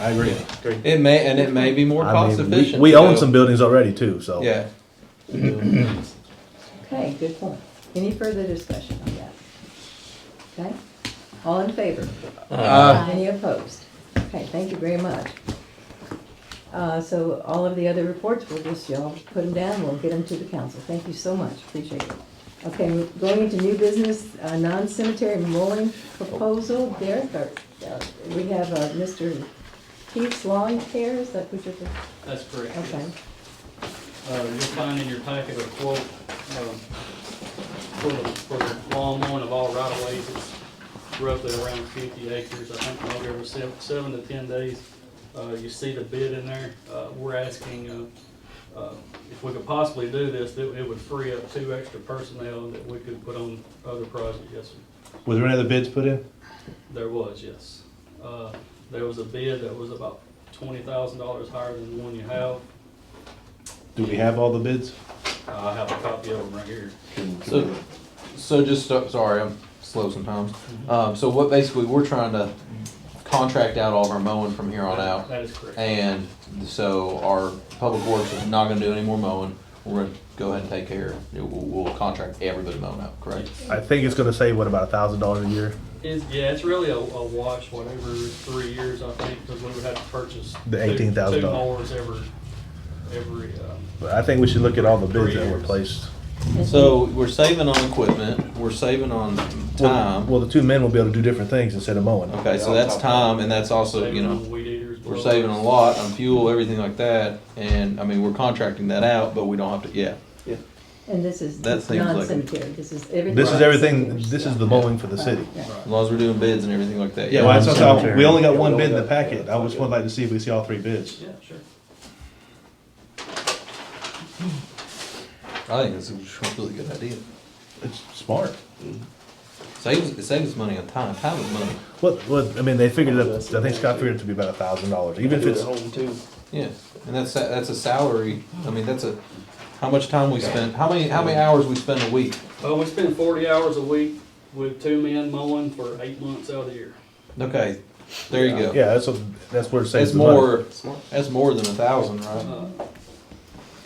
I agree. Great. It may, and it may be more I cost mean, we- efficient. We to own go- some buildings already too, so. Yeah. Okay, Good point. any further discussion on that? Okay, all in favor? Uh, Any opposed? Okay, thank you very much. Uh, so all of the other reports, we'll just, y'all put them down, we'll get them to the council. Thank you so much, appreciate it. Okay, going into new business, uh, non-cemetery mowing proposal, Derek, or, uh, we have, uh, Mr. Keith's Lawn Care, is that what you're, That's correct. yes. okay. Uh, you'll find in your packet a quote, um, for the, for the lawn mowing of all right of ways. It's roughly around fifty acres, I think, maybe every seven, seven to ten days. Uh, you see the bid in there, uh, we're asking, uh, uh, if we could possibly do this, that it would free up two extra personnel that we could put on other projects, yes, sir. Was there any other bids put in? There was, yes. Uh, there was a bid that was about twenty thousand dollars higher than the one you have. Do we have all the bids? Uh, I have a copy of them right here. So, so just, so- sorry, I'm slow sometimes. Um, so what basically, we're trying to contract out all of our mowing from here on out. That is correct. And so our public works is not gonna do any more mowing. We're gonna go ahead and take care, we'll, we'll contract everybody mowing out, correct? I think it's gonna save, what, about a thousand dollars a year? It's, yeah, it's really a, a wash, whatever, three years, I think, because we would have to purchase. The two- $18,000. Two mowers every, every, um, But I think we should look at all the bids Three that were years. placed. So we're saving on equipment, we're saving on Well, time. Well, the two men will be able to do different things instead of mowing. Okay, so that's time and that's also, you saving know. on weed eaters. We're saving a lot on fuel, everything like that, and, I mean, we're contracting that out, but we don't have to, yeah. And this is That seems like- non-cemetery, this is everything. This is about everything, cemeteries. this is the mowing for the city. Yeah. As long as we're doing bids and everything like that, Yeah, yeah. well, we're- that's what I'm saying. we only got Yeah, one we bid in only the got- packet. I just would like to see if we see all three bids. Yeah, sure. I think it's a really good idea. It's smart. Saves, it saves us money on time, time is money, What, what, I mean, they figured it up, I think Scott figured it to be about a thousand dollars, even if it's, Home too. yeah, and that's, a- that's a salary, I mean, that's a, how much time we spend, how many, how many hours we spend a week? Uh, we spend forty hours a week with two men mowing for eight months out of the year. Okay, there you go. yeah, that's, what- that's where it saves That's the money. more, that's more than a thousand, right? Uh,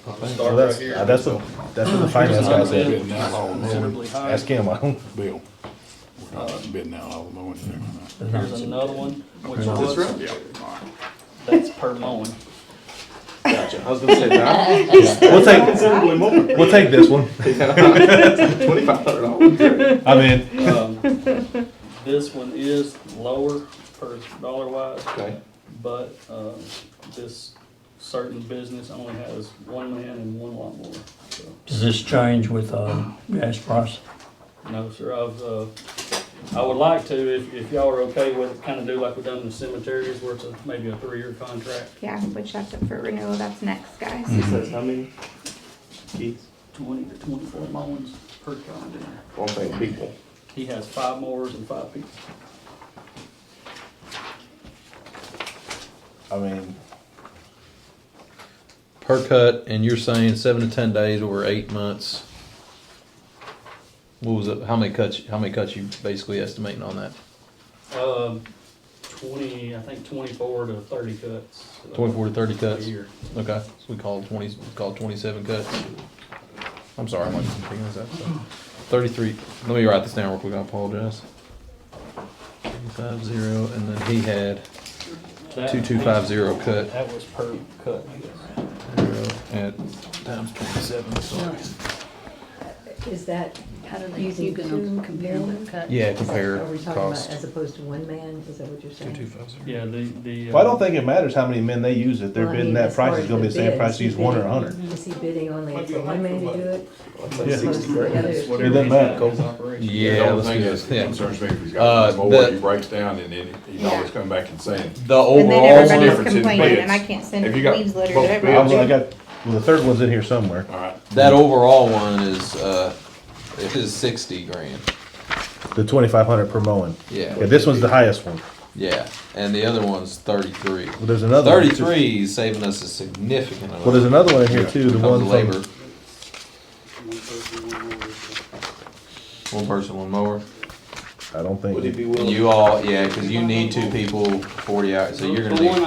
I think. Well, that's, uh, that's what, that's what the finance guy said. Bidding out all mowing, considerably higher. Ask him, I don't, Bill. Uh, We're not bidding out all mowing. Here's another one, which No. was, Yeah, all right. that's per mowing. I was gonna say that. we'll take, we'll take this one. Twenty-five hundred dollars. I mean, Um, This one is lower per dollar wise, Okay, but, um, this certain business only has one man and one lawnmower, so. Does this change with, uh, gas price? No, sir, I've, uh, I would like to, if, if y'all are okay with it, kinda do like we've done in the cemeteries, where it's a, maybe a three-year contract. Yeah, which that's up for renewal, that's next, guys. Says how many? Keith? Twenty to twenty-four mowings per calendar. year. One thing, people. He has five mowers and five people. I mean, per cut, and you're saying seven to ten days over eight months. What was it, how many cuts, how many cuts you basically estimating on that? Um, twenty, I think twenty-four to thirty cuts. uh, Twenty-four to thirty A cuts? year. Okay, so we call it twenty, we call it twenty-seven cuts. I'm sorry, I'm like, picking this up. so. Thirty-three, let me write this down real quick, I apologize. Five zero, and then he had That- two-two-five-zero cut That was per cut. at times twenty-seven, sorry. Is that I don't know, using you two can compare uh, men? the cut. Yeah, Is that- compare Are we talking about cost. as opposed to one man, is that what you're saying? Two-two-five-zero. Yeah, the, the. well, I uh, don't think it matters how many men they use it. They're Well, I bidding mean, that as far price. It's as gonna be the same bid, price is to use he one or a bidding- hundred. Is he bidding only for one man to do it? Yeah. as opposed to the others? It doesn't matter. His operation. Yeah, The let's only do thing this, that yeah. concerns me is Uh, he's got a mower, the- he breaks down and then he's Yeah. always coming back and saying, The And then overall one. everybody's difference in complaining, bids. and I can't send Have you got leaves letters, both I everybody. was- I got, well, the third one's in here somewhere. all right. That overall one is, uh, it is sixty grand, The twenty-five hundred per mowing. Yeah, yeah, this one's the highest one. yeah, and the other one's thirty-three. Well, there's another. one. Thirty-three is saving us a significant amount. Well, there's another one in here too, the Comes one labor, from, One person, one person, one one mower. mower, I don't think. Would he be and willing? you all, yeah, cause you need two people, forty hours, so you're gonna The need. one